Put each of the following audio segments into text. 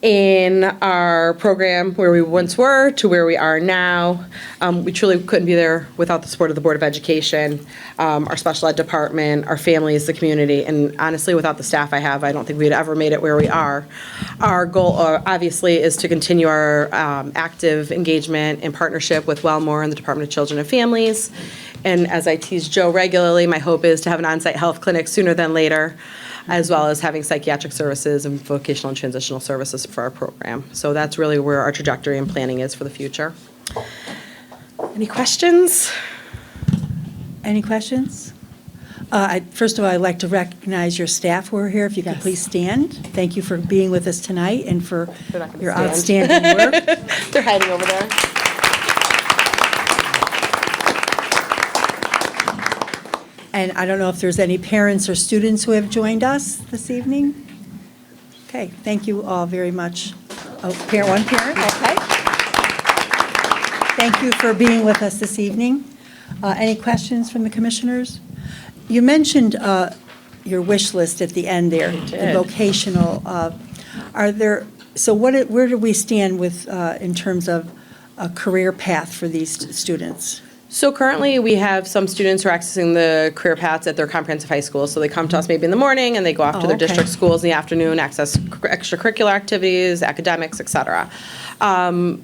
in our program where we once were to where we are now. Um, We truly couldn't be there without the support of the Board of Education, um, our special ed department, our families, the community, and honestly, without the staff I have, I don't think we'd ever made it where we are. Our goal, uh, obviously, is to continue our um, active engagement and partnership with Wellmore and the Department of Children and Families. And as I tease Joe regularly, my hope is to have an on-site health clinic sooner than later as well as having psychiatric services and vocational and transitional services for our program. So that's really where our trajectory and planning is for the future. Any questions? Any questions? Uh, I- First of all, I'd like to recognize your staff who are here. If you could please stand. Thank you for being with us tonight and for They're not gonna your stand. outstanding work. They're hiding over there. And I don't know if there's any parents or students who have joined us this evening? Okay, thank you all very much. Oh, parent, one parent, okay. Thank you for being with us this evening. Uh, Any questions from the commissioners? You mentioned uh, your wish list at the end there, the did. vocational. uh, Are there, so what, it- where do we stand with, uh, in terms of a career path for these st- students? So currently, we have some students who are accessing the career paths at their comprehensive high school. So they come to us maybe in the morning, and they go off to Oh, their okay. district schools in the afternoon, access c- extracurricular activities, academics, et cetera. Um,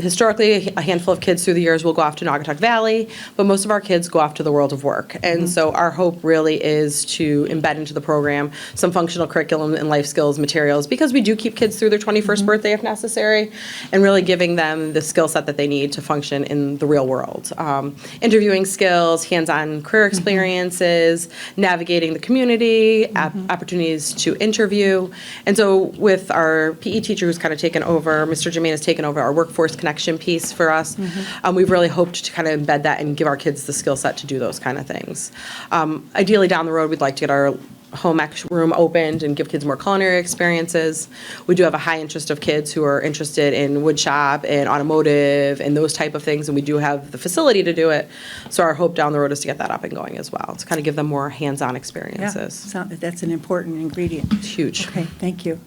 Historically, a handful of kids through the years will go off to Naugatuck Valley, but most of our kids go off to the world of work. And so our hope really is to embed into the program some functional curriculum and life skills materials, because we do keep kids through their 21st birthday if necessary, and really giving them the skill set that they need to function in the real world. Um, Interviewing skills, hands-on career experiences, navigating the community, op- opportunities to interview. And so with our PE teacher who's kind of taken over, Mr. Jermaine has taken over our workforce connection piece for us. Um, We've really hoped to kind of embed that and give our kids the skill set to do those kind of things. Um, Ideally, down the road, we'd like to get our home ec room opened and give kids more culinary experiences. We do have a high interest of kids who are interested in wood shop and automotive and those type of things, and we do have the facility to do it. So our hope down the road is to get that up and going as well, to kind of give them more hands-on Yeah, experiences. so- That's an important ingredient. It's huge. Okay, thank you.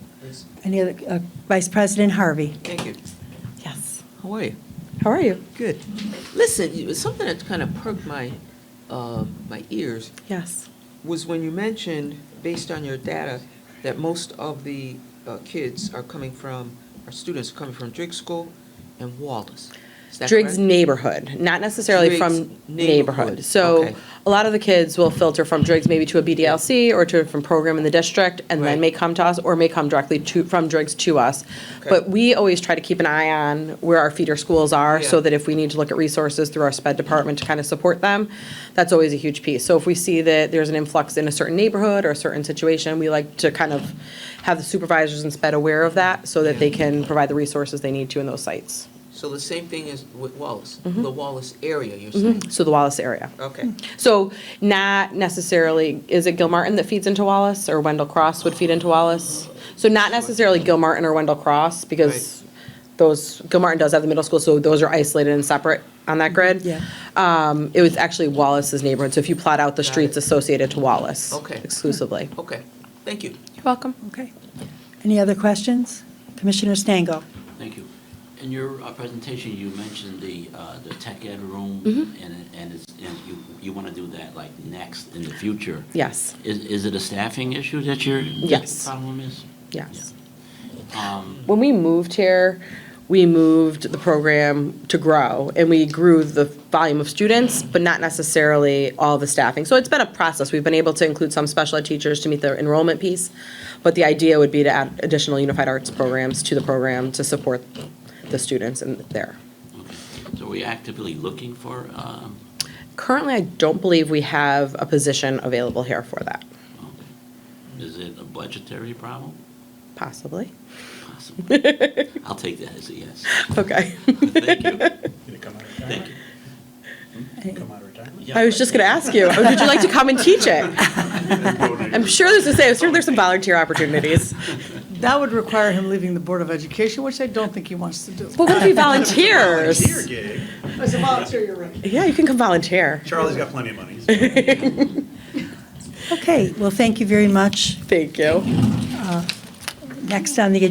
Any other, uh, Vice President Harvey? Thank you. Yes. How are you? How are you? Good. Listen, you- something that kind of perked my, uh, my ears Yes. was when you mentioned, based on your data, that most of the uh, kids are coming from, our students are coming from Driggs School and Wallace. Is that Driggs correct? neighborhood, not necessarily Driggs from neighborhood. neighborhood, So okay. a lot of the kids will filter from Driggs maybe to a BDLC or to a different program in the district and then Right. may come to us or may come directly to, from Driggs to us. Okay. But we always try to keep an eye on where our feeder schools are so Yeah. that if we need to look at resources through our sped department to kind of support them, that's always a huge piece. So if we see that there's an influx in a certain neighborhood or a certain situation, we like to kind of have the supervisors and sped aware of that so that Yeah. they can provide the resources they need to in those sites. So the same thing is with Wallace, the Wallace area, you're saying? So the Wallace area. Okay, So not necessarily, is it Gilmartin that feeds into Wallace or Wendell Cross would feed into Wallace? So not necessarily Gilmartin or Wendell Cross because those, Gilmartin does have the middle school, so those are isolated and separate on that grid. Yeah. Um, It was actually Wallace's neighborhood, so if you plot out the Got streets it. associated to Wallace. Okay. Exclusively. okay, thank you. You're welcome. Okay. Any other questions? Commissioner Stango? Thank you. In your uh, presentation, you mentioned the, uh, the tech ed room, and, and it's, and you, you want to do that like next in the future. Yes, Is, is it a staffing issue that your? Yes. Problem is? yes. Um, When we moved here, we moved the program to grow, and we grew the volume of students, but not necessarily all the staffing. So it's been a process. We've been able to include some special ed teachers to meet the enrollment piece, but the idea would be to add additional unified arts programs to the program to support the students in there. okay. So are we actively looking for, um, Currently, I don't believe we have a position available here for that, okay. is it a budgetary problem? possibly. Possibly. I'll take that as a yes. Okay. Thank you. Gonna come out of Thank you. retirement? Come out of retirement? Yeah. I was just going to ask you, would you like to come and teach it? I'm sure there's, a- I'm sure there's some volunteer opportunities. That would require him leaving the Board of Education, which I don't think he wants to do. But what if we volunteers? Volunteer gig. As a volunteer, you're right. Yeah, you can come volunteer. Charlie's got plenty of money. Okay, well, thank you very much. Thank you. Next on the